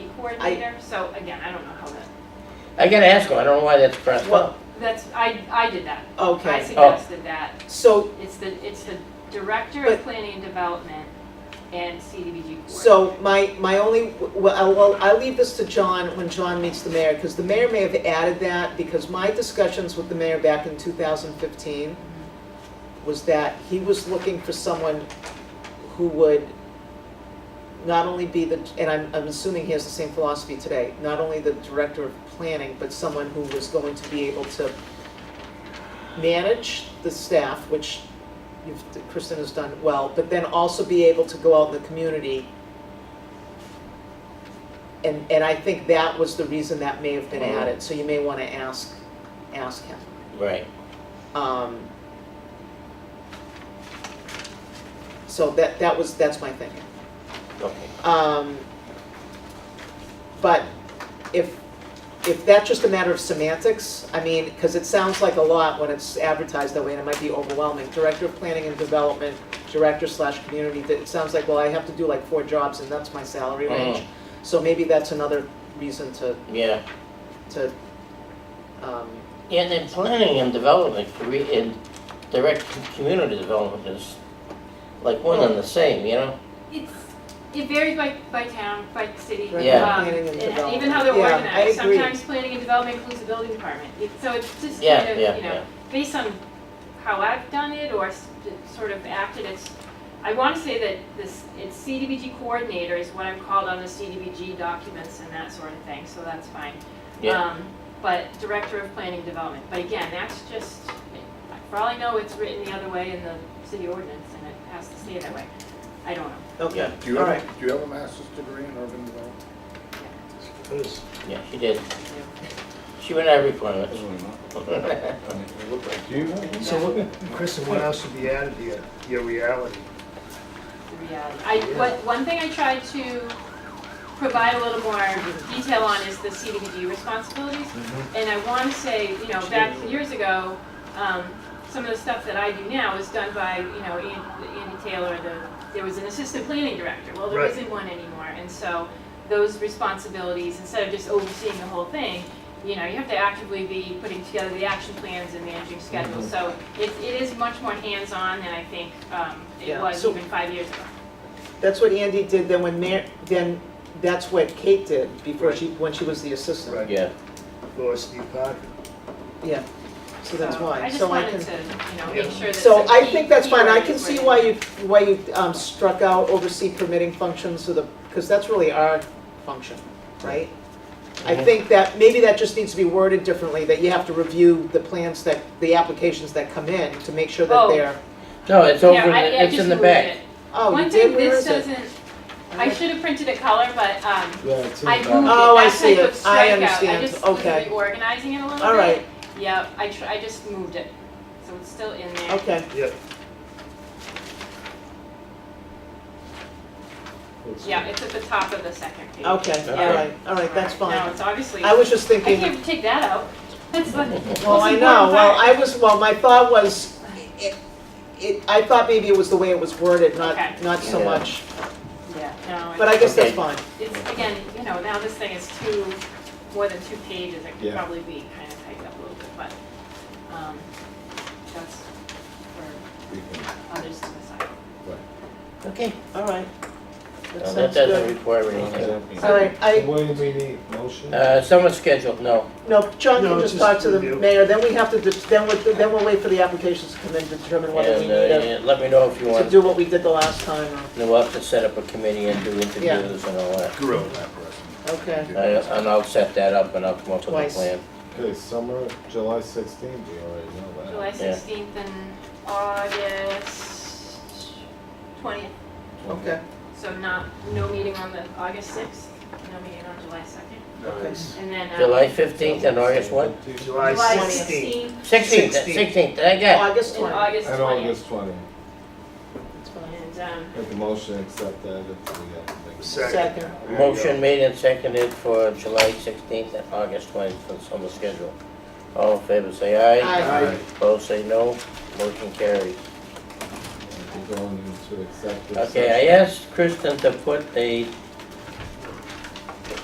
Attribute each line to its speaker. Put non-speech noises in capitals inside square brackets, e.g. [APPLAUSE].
Speaker 1: coordinator, so again, I don't know how that,
Speaker 2: I gotta ask him, I don't know why that's pressed
Speaker 3: Well,
Speaker 2: up.
Speaker 1: that's, I, I did that. I
Speaker 3: okay,
Speaker 1: suggested that.
Speaker 3: so,
Speaker 1: It's the, it's the Director
Speaker 3: But-
Speaker 1: of Planning and Development and CDBG
Speaker 3: so
Speaker 1: coordinator.
Speaker 3: my, my only, well, I'll- well, I'll leave this to John when John meets the mayor, because the mayor may have added that, because my discussions with the mayor back in two thousand fifteen was that he was looking for someone who would not only be the, and I'm, I'm assuming he has the same philosophy today, not only the director of planning, but someone who was going to be able to manage the staff, which you've, Kristen has done well, but then also be able to go out in the community. And, and I think that was the reason that may have been added, so you may wanna ask, ask him.
Speaker 2: Right.
Speaker 3: Um, So that, that was, that's my thinking.
Speaker 2: Okay.
Speaker 3: Um, But if, if that's just a matter of semantics, I mean, because it sounds like a lot when it's advertised that way, and it might be overwhelming. Director of Planning and Development, Director slash Community, that- it sounds like, well, I have to do like four jobs and that's my salary range.
Speaker 2: Mhm.
Speaker 3: So maybe that's another reason to,
Speaker 2: Yeah.
Speaker 3: to, um,
Speaker 2: And then planning and development, cre- and direct com- community development is like one and the same, you know?
Speaker 1: It's, it varies by, by town, by city.
Speaker 3: Right,
Speaker 2: Yeah.
Speaker 1: um,
Speaker 3: planning and
Speaker 1: Even how they're
Speaker 3: development. Yeah, I
Speaker 1: organized,
Speaker 3: agree.
Speaker 1: sometimes planning and development includes the building department. It- So it's just
Speaker 2: Yeah,
Speaker 1: kind of,
Speaker 2: yeah,
Speaker 1: you know,
Speaker 2: yeah.
Speaker 1: based on how I've done it or s- sort of acted, it's, I want to say that this, it's CDBG coordinator is what I'm called on the CDBG documents and that sort of thing, so that's fine.
Speaker 2: Yeah.
Speaker 1: Um, But director of planning and development, but again, that's just, for all I know, it's written the other way in the city ordinance and it has to stay that way. I don't know.
Speaker 3: okay.
Speaker 4: Do you
Speaker 3: All
Speaker 4: have, do you have a master's degree in urban development?
Speaker 2: Yeah, she did. She went every planet. [LAUGHS]
Speaker 4: Do you? know?
Speaker 5: So, what- Kristen, what else should be added to your, your reality?
Speaker 1: the reality. I, what, one thing I tried to provide a little more detail on is the CDBG responsibilities. And I want to say, you know, back years ago, um, some of the stuff that I do now is done by, you know, An- Andy Taylor, the, there was an assistant planning director. Well, there
Speaker 5: Right.
Speaker 1: isn't one anymore. And so those responsibilities, instead of just overseeing the whole thing, you know, you have to actively be putting together the action plans and managing schedules.
Speaker 3: Mhm.
Speaker 1: So it, it is much more hands-on than I think, um, it
Speaker 3: Yeah.
Speaker 1: was
Speaker 3: So-
Speaker 1: even five years ago.
Speaker 3: That's what Andy did, then when Mar, then that's what Kate did before she, when she was the assistant.
Speaker 5: Right.
Speaker 2: Yeah,
Speaker 5: Or Steve Parker?
Speaker 3: Yeah, so that's
Speaker 1: So
Speaker 3: why,
Speaker 1: I just
Speaker 3: so I
Speaker 1: wanted
Speaker 3: can,
Speaker 1: to, you know,
Speaker 5: Yeah.
Speaker 1: make sure that.
Speaker 3: so
Speaker 1: the
Speaker 3: I
Speaker 1: key-
Speaker 3: think that's
Speaker 1: key
Speaker 3: fine, I
Speaker 1: word
Speaker 3: can
Speaker 1: is
Speaker 3: see
Speaker 1: where-
Speaker 3: why you, why you um, struck out oversee permitting functions of the, because that's really our function, right? I
Speaker 2: Mhm.
Speaker 3: think that, maybe that just needs to be worded differently, that you have to review the plans that, the applications that come in to make sure that
Speaker 1: Oh.
Speaker 3: they're,
Speaker 2: no, it's
Speaker 1: Yeah,
Speaker 2: over, in
Speaker 1: I-
Speaker 2: the-
Speaker 1: I
Speaker 2: it's
Speaker 1: just
Speaker 2: in the
Speaker 1: moved
Speaker 2: back.
Speaker 1: it.
Speaker 3: oh, you
Speaker 1: One
Speaker 3: did,
Speaker 1: thing,
Speaker 3: where
Speaker 1: this
Speaker 3: is it?
Speaker 1: doesn't, I should have printed a color, but, um, I moved it,
Speaker 3: Oh, I
Speaker 1: that
Speaker 3: see
Speaker 1: type of
Speaker 3: it.
Speaker 1: strikeout,
Speaker 3: I
Speaker 1: I
Speaker 3: understand.
Speaker 1: just was
Speaker 3: Okay.
Speaker 1: reorganizing it a little bit.
Speaker 3: All right,
Speaker 1: Yep, I tr- I just moved it, so it's still in there.
Speaker 3: okay,
Speaker 5: Yep.
Speaker 1: Yeah, it's at the top of the second page.
Speaker 3: okay, all
Speaker 2: Okay.
Speaker 3: right, all right, that's
Speaker 1: Now,
Speaker 3: fine.
Speaker 1: it's obviously,
Speaker 3: I
Speaker 1: I
Speaker 3: was just thinking.
Speaker 1: can't take that out. That's the most important part.
Speaker 3: Well, I know, well, I was, well, my thought was, it, it, I thought maybe it was the way it was
Speaker 1: Okay.
Speaker 3: worded, not, not so
Speaker 2: Yeah.
Speaker 3: much,
Speaker 1: Yeah, no.
Speaker 3: but I guess that's
Speaker 2: Okay.
Speaker 3: fine.
Speaker 1: It's, again, you know, now this thing is two, more than two pages, it could
Speaker 4: Yeah.
Speaker 1: probably be kind of typed up a little bit, but, um, that's for others to decide.
Speaker 2: Okay,
Speaker 3: All right. That
Speaker 2: No, that
Speaker 3: sounds
Speaker 2: doesn't
Speaker 3: good.
Speaker 2: require anything.
Speaker 3: All right, I,
Speaker 6: What do we need, motion?
Speaker 2: Uh, someone's scheduled, no.
Speaker 3: no, John can
Speaker 5: No,
Speaker 3: just
Speaker 5: just
Speaker 3: talk to the
Speaker 5: review.
Speaker 3: mayor, then we have to, de- then we, then we'll wait for the applications to come in to determine whether we
Speaker 2: And,
Speaker 3: need
Speaker 2: uh,
Speaker 3: it,
Speaker 2: yeah, let me know if you
Speaker 3: to
Speaker 2: want,
Speaker 3: do what we did the last time, or-
Speaker 2: then we'll have to set up a committee and do interviews and all that.
Speaker 4: Grill that person.
Speaker 3: okay,
Speaker 2: I- And I'll set that up and I'll come up with a
Speaker 3: Twice.
Speaker 2: plan.
Speaker 6: Okay, summer, July sixteenth, we already know that.
Speaker 1: July sixteenth and August twentieth,
Speaker 3: okay,
Speaker 1: so not, no meeting on the August sixth, no meeting on July second,
Speaker 3: okay.
Speaker 1: and then, uh,
Speaker 2: July fifteenth and August what?
Speaker 5: July
Speaker 1: July
Speaker 5: 16th.
Speaker 1: sixteenth
Speaker 2: Sixteenth,
Speaker 5: Sixteenth.
Speaker 2: sixteenth, I got it.
Speaker 3: August
Speaker 1: and
Speaker 3: twenty,
Speaker 1: August
Speaker 6: And
Speaker 1: twentieth.
Speaker 6: August twentieth,
Speaker 3: it's fine.
Speaker 1: And, um,
Speaker 6: make the motion, accept that, if we have to make a
Speaker 5: Second.
Speaker 3: Second,
Speaker 4: There you go.
Speaker 2: Motion made and seconded for July sixteenth and August twentieth for the summer schedule. All in favor, say aye.
Speaker 3: aye,
Speaker 6: Aye.
Speaker 2: Opposed, say no. Motion carries.
Speaker 6: motion. We're going into executive session.
Speaker 2: Okay, I asked Kristen to put a